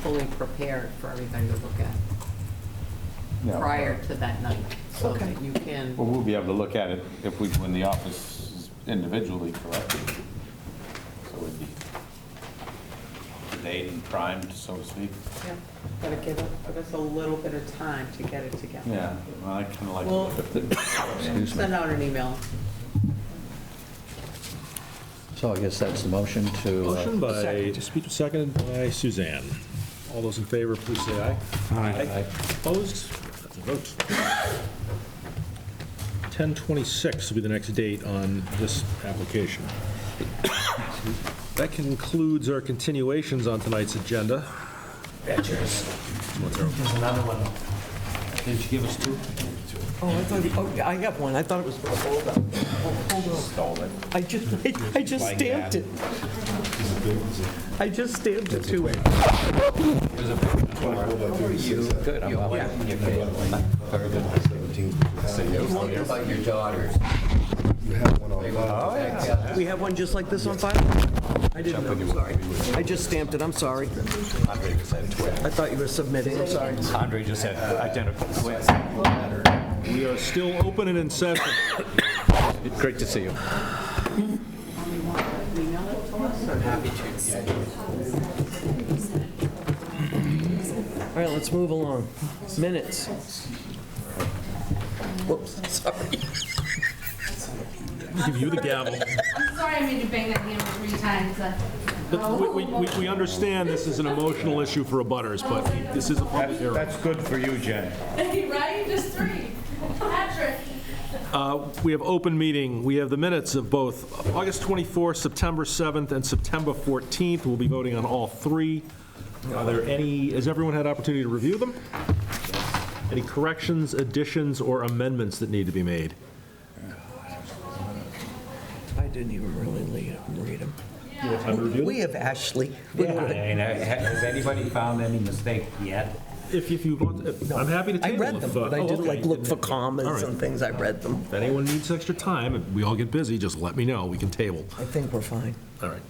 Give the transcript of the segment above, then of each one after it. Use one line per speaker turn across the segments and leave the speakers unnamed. fully prepared for everything to look at
Yeah.
prior to that night, so
Okay.
that you can,
Well, we'll be able to look at it if we, when the office is individually corrected. So it'd be made and primed, so to speak.
Yeah, Gotta give it, give us a little bit of time to get it together.
Yeah, well, I kind of like.
We'll
Excuse me.
send out an email.
So I guess that's the motion to. uh,
Motion by, seconded by Suzanne. All those in favor, please say aye.
Aye.
Opposed? That's a vote. 10:26 will be the next date on this application. That concludes our continuations on tonight's agenda.
There's another one.
Didn't you give us two?
Oh, I thought, you- oh, I got one. I thought it was, hold on. Oh, Hold on.
Stole it.
I just, I- I just stamped it. I just stamped it too.
Good, I'm well.
About your daughters.
We have one just like this on file? I didn't know, I'm sorry. I just stamped it, I'm sorry. I thought you were submitting, I'm sorry.
Andre just had identical twins.
We are still open and in session.
Great to see you.
All right, let's move along. Minutes. Whoops, sorry.
Give you the gavel.
I'm sorry I made you bang that hammer three times. uh,
But we- We we- we understand this is an emotional issue for abutters, but this is a public hearing.
good for you, Jen.
Right, just three. Patrick.
We have open meeting. We have the minutes of both August 24th, September 7th, and September 14th. We'll be voting on all three. Are there any, has everyone had opportunity to review them? Any corrections, additions, or amendments that need to be made?
I didn't even really le- read them.
Time to review them?
We have Ashley.
Has anybody found any mistake yet?
If if you want, if- I'm happy to
I
table.
read
if,
them,
uh,
but I
oh,
didn't
okay.
like look for
All
commas
right.
and things, I read them.
If anyone needs extra time, if we all get busy, just let me know. We can table.
I think we're fine.
All right.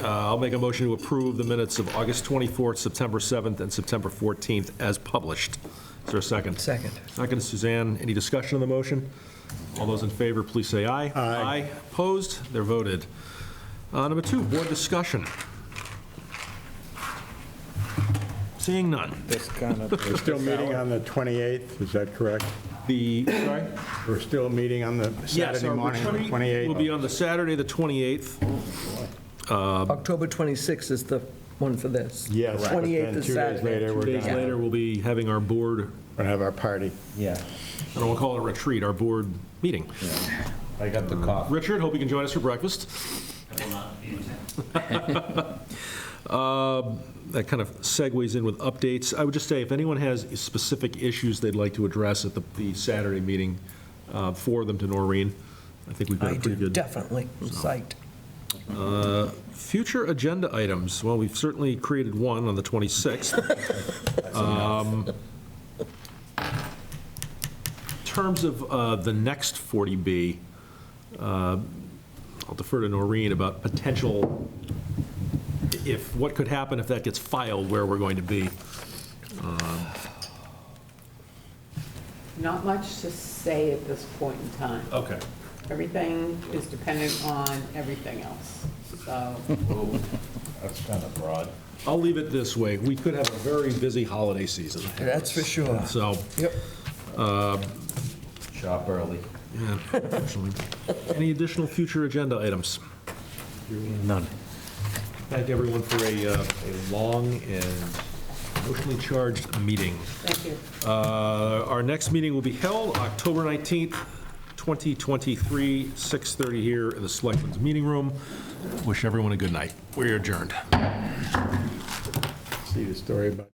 Uh, I'll make a motion to approve the minutes of August 24th, September 7th, and September 14th as published. Is there a second?
Second.
Second, Suzanne. Any discussion on the motion? All those in favor, please say aye. Aye. Opposed? They're voted. Uh, Number two, board discussion. Seeing none.
We're still meeting on the 28th, is that correct?
The, sorry?
We're still meeting on the
Yes,
Saturday
our
morning, the
retreat Will be
28th?
on the Saturday, the 28th.
October 26th is the one for this.
Yes, but
28th
then
is
two days
Saturday.
later,
Two
we're
days
going
later, we'll be having our board,
to have our party.
Yeah,
I don't want to call it a retreat, our board meeting.
I got the cough.
Uh, Richard, hope you can join us for breakfast. Um, That kind of segues in with updates. I would just say, if anyone has specific issues they'd like to address at the- the Saturday meeting, uh, forward them to Noreen. I think we've got
I
a pretty
do,
good.
definitely, I'm psyched.
Future agenda items, well, we've certainly created one on the 26th. Um, In terms of uh, the next 40B, uh, I'll defer to Noreen about potential, if, what could happen if that gets filed, where we're going to be.
not much to say at this point in time.
Oh.
Okay.
Everything is dependent on everything else, so,
That's kind of broad.
I'll leave it this way, we could have a very busy holiday season.
That's for sure.
So,
Yep.
Shop early.
yeah, unfortunately. Any additional future agenda items?
None.
Thank everyone for a, uh, a long and emotionally charged meeting.
thank you.
Uh, Our next meeting will be held October 19th, 2023, 6:30 here in the Selectmen's Meeting Room. Wish everyone a good night. We're adjourned.
See the story about...